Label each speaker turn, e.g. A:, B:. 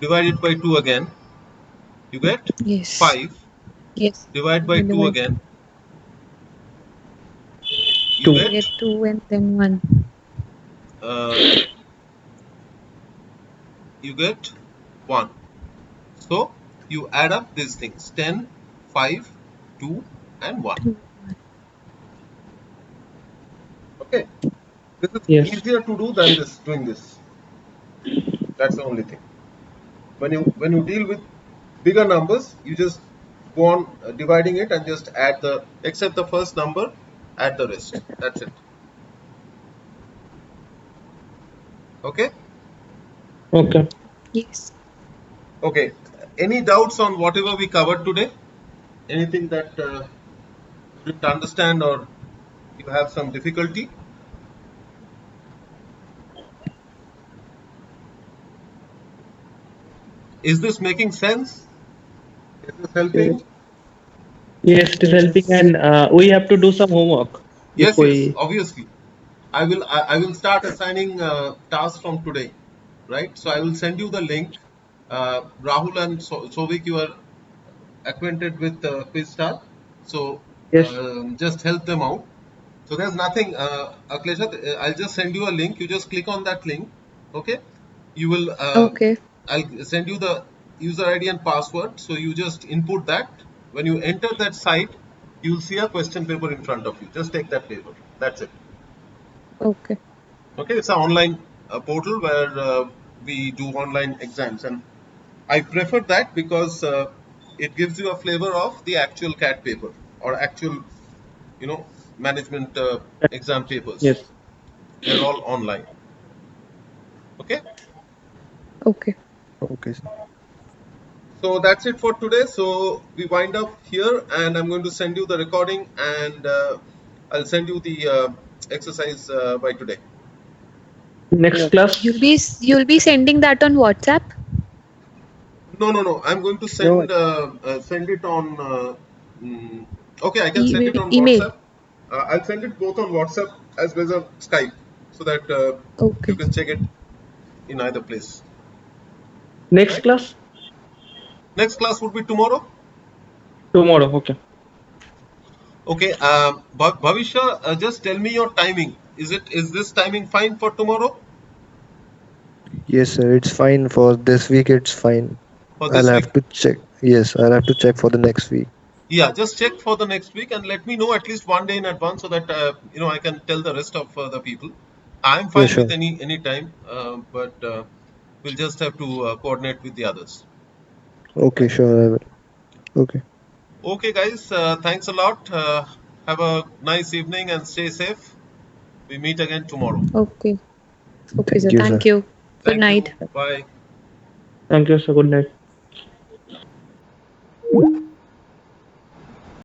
A: divide it by 2 again you get
B: Yes.
A: 5
B: Yes.
A: divide by 2
B: Divide.
A: again you
C: Two.
B: You
A: get
B: get two and then one.
A: uh, you get 1 so you add up these things 10 5 2 and 1 okay this is
C: Yes.
A: easier to do than this doing this that's the only thing when you when you deal with bigger numbers you just go on uh, dividing it and just add the except the first number add the rest that's it okay
C: Okay.
B: Yes.
A: okay any doubts on whatever we covered today anything that uh, you didn't understand or you have some difficulty is this making sense is this helping
C: Yes, it is helping, and uh, we have to do some homework.
A: yes,
C: If we-
A: yes obviously i will I, I will start assigning uh, tasks from today right so i will send you the link uh, rahul and so- sovik you are acquainted with uh, quizstar so
C: Yes.
A: um, just help them out so there's nothing uh, Aklesha, uh, i'll just send you a link you just click on that link okay you will uh,
B: okay.
A: I'll send you the user ID and password. So you just input that. When you enter that site, you'll see a question paper in front of you. Just take that paper. That's it.
B: Okay.
A: Okay, it's an online uh, portal where uh, we do online exams, and I prefer that because uh, it gives you a flavor of the actual CAT paper or actual, you know, management uh, exam papers.
C: Yes.
A: they're all online. Okay.
B: Okay.
D: Okay, sir.
A: So that's it for today. So we wind up here, and I'm going to send you the recording, and uh, I'll send you the uh, exercise uh, by today.
C: Next class.
B: You'll be you'll be sending that on WhatsApp.
A: No, no, no. I'm going to send uh, uh, send it on. Uh, mm, okay, I can send it on
B: Email.
A: WhatsApp. Uh, I'll send it both on WhatsApp as well as on Skype, so that uh,
B: Okay.
A: you can check it in either place.
C: Next class
A: Next class would be tomorrow.
C: tomorrow. Okay.
A: Okay, uh, Bha- Bhavisha, uh, just tell me your timing. Is it is this timing fine for tomorrow?
D: Yes, sir. It's fine for this week. It's fine.
A: For this
D: I'll
A: week?
D: have to check. Yes, I'll have to check for the next week.
A: Yeah, just check for the next week and let me know at least one day in advance so that uh, you know I can tell the rest of uh, the people. I'm fine
D: sure.
A: with any any time, uh, but uh, we'll just have to uh, coordinate with the others.
D: Okay, sure. I will. Okay.
A: Okay, guys, uh, thanks a lot. Uh, have a nice evening and stay safe. We meet again tomorrow.
B: Okay. Okay,
D: Thank
B: sir.
D: you,
B: Thank
D: sir.
B: you. Good
A: Thank
B: night.
A: You. Bye.
C: Thank you, sir. Good night.